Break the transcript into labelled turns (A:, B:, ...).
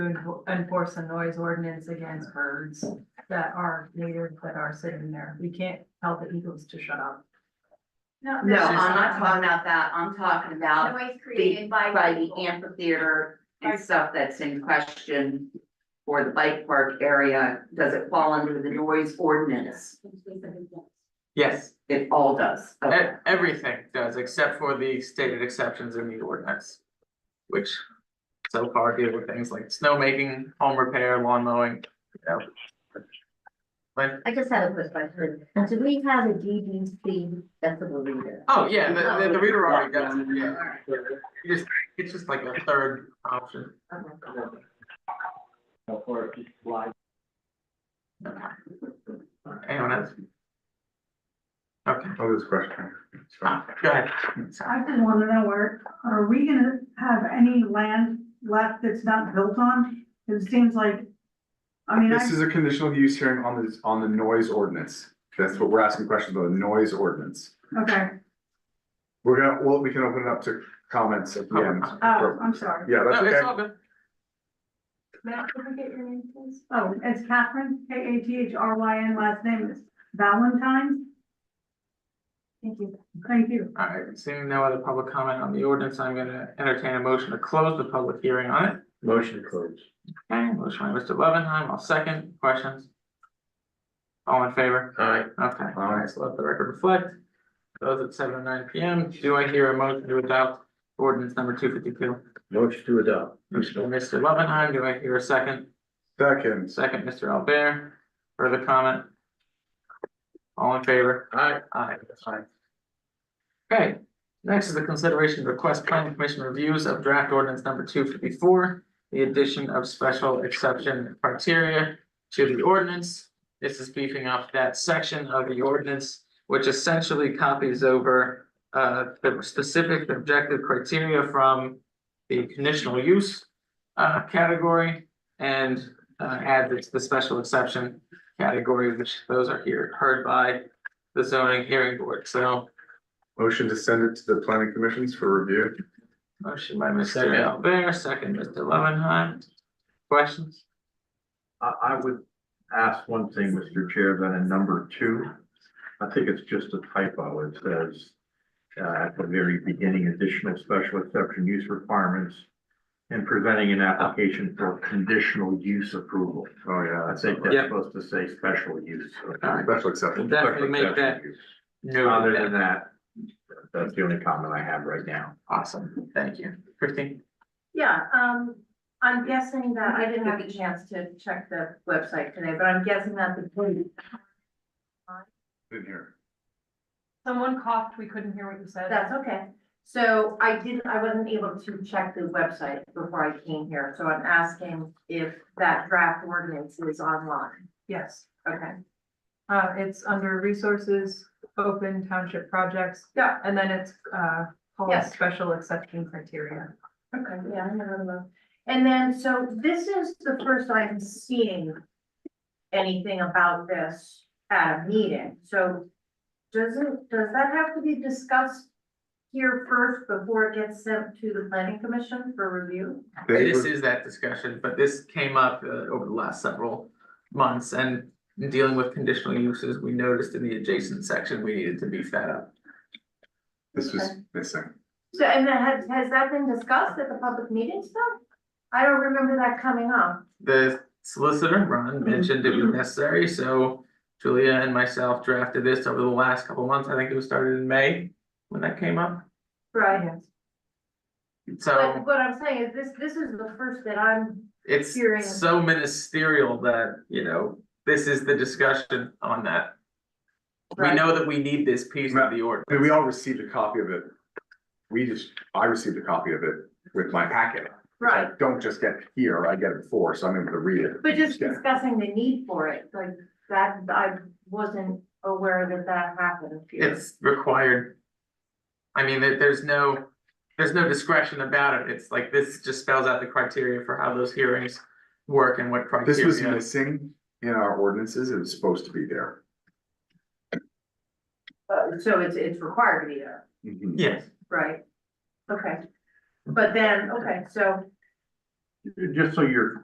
A: to enforce a noise ordinance against birds that are native, that are sitting there. We can't tell the eagles to shut up.
B: No,
C: No,
B: no,
C: I'm not talking about that, I'm talking about
B: Noise created by.
C: by the
B: people.
C: amphitheater and stuff that's in question. Or the bike park area, does it fall under the noise ordinance?
D: Yes,
C: It all does,
D: e-
C: okay,
D: everything does except for the stated exceptions in the ordinance. Which so far deal with things like snowmaking, home repair, lawn mowing, you know. Like,
E: I just had a quick question. Do we have a DDC decibel reader?
D: oh yeah, the the the reader already does it, yeah.
E: Alright,
D: You just, it's just like a third option.
E: okay.
F: Or live
D: Anyone else? Okay,
G: Oh, this question.
D: Ah, go ahead.
H: I just wanna know where, are we gonna have any land left that's not built on? It seems like, I mean,
G: This
H: I,
G: is a conditional use hearing on this, on the noise ordinance. That's what we're asking questions about, the noise ordinance.
H: okay,
G: We're gonna, well, we can open it up to comments at the end.
H: oh, I'm sorry.
G: Yeah, that's
D: No, it's
G: okay.
D: all good.
A: Matt, can I get your name, please?
H: Oh, it's Catherine, K A T H R Y N, last name is Valentine.
A: Thank you.
H: Thank you.
D: All right, seeing no other public comment on the ordinance, I'm gonna entertain a motion to close the public hearing on it.
F: motion closed.
D: Okay, motion by Mr. Loveenheim, I'll second, questions? All in favor?
F: Aye.
D: Okay, all right, so let the record reflect. Those at seven oh nine P M, do I hear a motion to adopt ordinance number two fifty-two?
F: Motion to adopt.
D: Mr. Loveenheim, do I hear a second?
G: Second,
D: Second, Mr. Albert, further comment? All in favor?
F: Aye.
D: Aye. Aye. Okay, next is the consideration of request planning commission reviews of draft ordinance number two fifty-four. The addition of special exception criteria to the ordinance. This is beefing up that section of the ordinance, which essentially copies over. Uh, the specific objective criteria from the conditional use. Uh, category and uh, add the, the special exception category, which those are here, heard by the zoning hearing board, so.
G: motion to send it to the planning commissions for review.
D: Motion by Mr.
F: Second.
D: Albert, second Mr. Levenheim. Questions?
I: I, I would ask one thing, Mr. Chair, that in number two, I think it's just a typo. It says uh, at the very beginning, additional special exception use requirements and preventing an application for conditional use approval.
G: Oh, yeah,
I: I
G: that's
I: think that's
D: Yeah.
I: supposed to say special use.
D: Alright.
G: special
D: We'll
G: exception.
D: definitely
I: Special
D: make that
I: exception use. Other
D: noted,
I: than that, that's the only comment I have right now.
D: awesome, thank you, Christine.
B: Yeah, um, I'm guessing that, I didn't have a chance to check the website today, but I'm guessing that the.
G: Didn't hear.
A: Someone coughed, we couldn't hear what you said.
B: That's okay. So I didn't, I wasn't able to check the website before I came here, so I'm asking if that draft ordinance is online.
A: Yes,
B: Okay,
A: uh, it's under resources, open township projects.
B: Yeah.
A: And then it's, uh, called
B: Yes.
A: special exception criteria.
B: okay, yeah, I never know. And then, so this is the first I'm seeing anything about this at a meeting, so doesn't, does that have to be discussed here first before it gets sent to the planning commission for review?
G: They
D: This
G: would-
D: is that discussion, but this came up uh, over the last several months and in dealing with conditional uses, we noticed in the adjacent section, we needed to beef that up.
G: This was missing.
B: So, and then has, has that been discussed at the public meetings though? I don't remember that coming up.
D: The solicitor,
B: Mm-hmm.
D: Ron, mentioned it was necessary, so Julia and myself drafted this over the last couple months, I think it was started in May when that came up,
B: Right. But
D: so
B: what I'm saying is this, this is the first that I'm,
D: it's
B: Hearing.
D: so ministerial that, you know, this is the discussion on that. We
B: Right.
D: know that we need this piece of the
G: I mean, we
D: ordinance,
G: all received a copy of it. We just, I received a copy of it with my packet. which I
B: right,
G: Don't just get here, I get it before, so I'm able to read it.
B: but just
G: Yeah.
B: discussing the need for it, like that, I wasn't aware that that happened. here.
D: it's required. I mean, there, there's no, there's no discretion about it, it's like, this just spells out the criteria for how those hearings work and what criteria.
G: This was missing in our ordinances, it was supposed to be there.
B: Uh, So it's, it's required to be there,
G: Mhm.
D: Yes.
B: right? Okay, but then, okay, so
I: Just so you're